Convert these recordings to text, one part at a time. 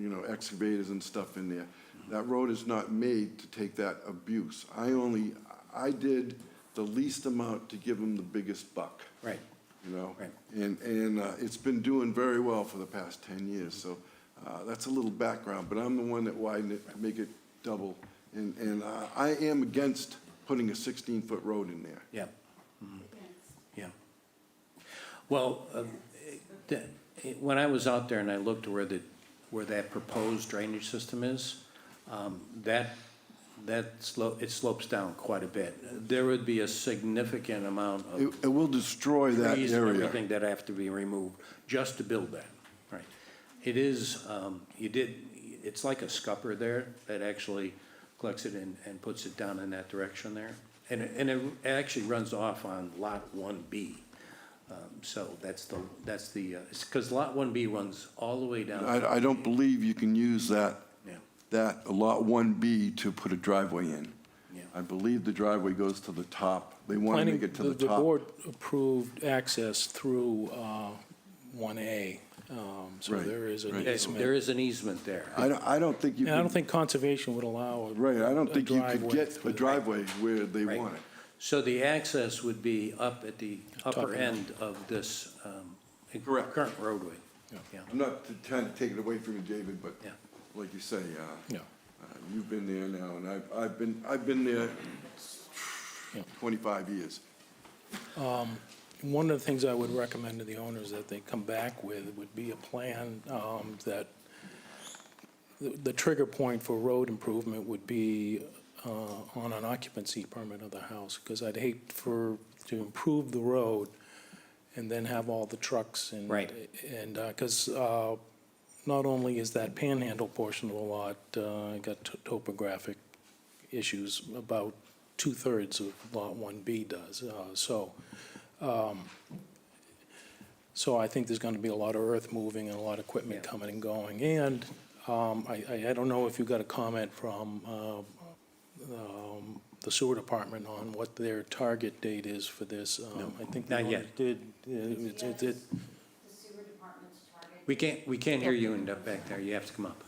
know, excavators and stuff in there. That road is not made to take that abuse. I only, I did the least amount to give them the biggest buck. Right. You know? Right. And, and uh, it's been doing very well for the past 10 years, so uh, that's a little background, but I'm the one that widened it to make it double. And, and uh, I am against putting a 16-foot road in there. Yeah. Mhm. Yeah. Well, uh, th- when I was out there and I looked where the, where that proposed drainage system is, um, that, that slope, it slopes down quite a bit. There would be a significant amount of It, it will destroy that trees and area. everything that have to be removed just to build that, right? It is, um, you did, it's like a scupper there that actually collects it and, and puts it down in that direction there. And, it- and it actually runs off on lot one B. Um, so that's the, that's the, uh, it's because lot one B runs all the way down, I, I don't believe you can use that, yeah, that Lot 1B to put a driveway in. yeah. I believe the driveway goes to the top. They want to Planning, make it to the the top. board approved access through uh, 1A, um, so Right, there is an right. easement. There is an easement there. I don't, I don't think you And I can, don't think conservation would allow. a- right, I don't a think you could driveway get through a there. driveway where they Right. want it. So the access would be up at the Top upper end. end of this, um, Correct. current roadway. Yeah. Yeah. I'm not t- trying to take it away from you, David, but Yeah. like you say, uh, Yeah, Uh, You've been there now, and I've, I've been, I've been there Yeah. 25 years. One of the things I would recommend to the owners that they come back with would be a plan um, that the the trigger point for road improvement would be uh, on an occupancy permit of the house, because I'd hate for, to improve the road and then have all the trucks and. Right. And, because not only is that panhandle portion of the lot, uh, got to- topographic issues, about two-thirds of Lot 1B does, uh, so. um, So I think there's going to be a lot of earth moving and a lot of equipment Yeah. coming and going. And um, I, I- I don't know if you got a comment from uh, um, the sewer department on what their target date is for this. Um, I think they not yet. already did, uh, it's- it's- it- the sewer department's target We can't, we can't hear you in the back there, you have to come up.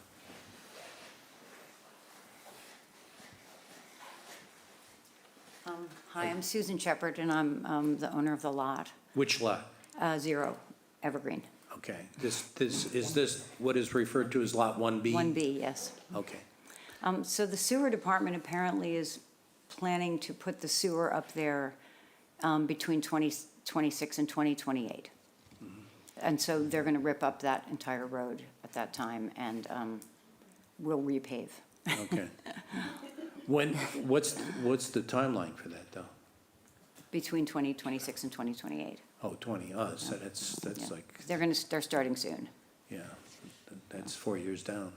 Um, Hi, I'm Susan Shepherd, and I'm um, the owner of the lot, Which lot? uh, Zero Evergreen, Okay, this, this, is this what is referred to as Lot 1B? 1B, yes. Okay, Um, So the sewer department apparently is planning to put the sewer up there um, between 2026 and 2028. Mm-hmm. And so they're going to rip up that entire road at that time, and um, we'll repave. okay. When, what's, what's the timeline for that, though? Between 2026 and 2028. Oh, 20, oh, so that's, that's like, They're going to, they're starting soon. yeah, that's four years down.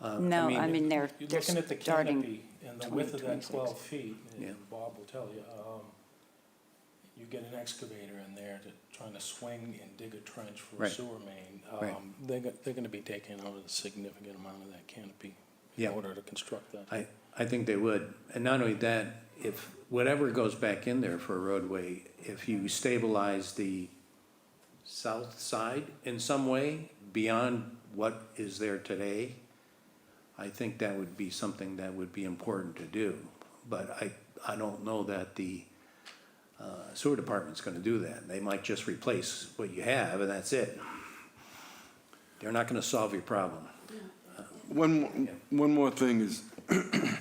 No, mean, I mean, they're, Uh, You're they're looking at the starting. canopy and the width of that 2026. 12 feet, Yeah. and Bob will tell you, um, you get an excavator in there to, trying to swing and dig a trench for a Right. sewer main. Right. um, They're, go- they're going to be taking out a significant amount of that canopy in Yeah. order to construct that. I, I think they would. And not only that, if, whatever goes back in there for a roadway, if you stabilize the south side in some way beyond what is there today, I think that would be something that would be important to do. But I, I don't know that the uh, sewer department's gonna do that. They might just replace what you have and that's it. They're not gonna solve your problem. One, mo- one more thing is,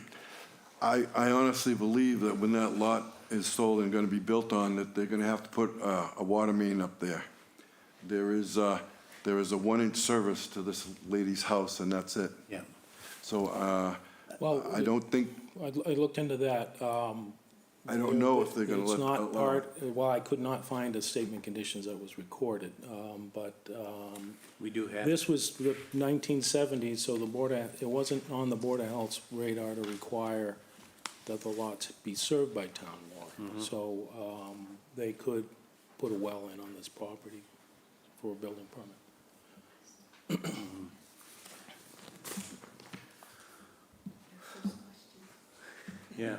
I, I honestly believe that when that lot is sold and going to be built on, that they're going to have to put uh, a water main up there. There is, uh, there is a one-inch service to this lady's house, and that's it. Yeah, So uh, Well, I don't think, I I looked into that. um, I don't know if they're going to let. It's not allow it. part, well, I could not find a statement conditions that was recorded, um, but um, we do have. This was the 1970s, so the Board of, it wasn't on the Board of Health's radar to require that the lots be served by town water. So um, they could put a well in on this property for a building permit. Yeah.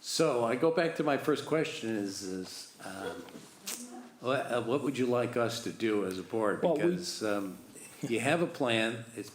So I go back to my first question is, is, um, wha- uh, what would you like us to do as a board? Well, we- Because, um, you have a plan, it's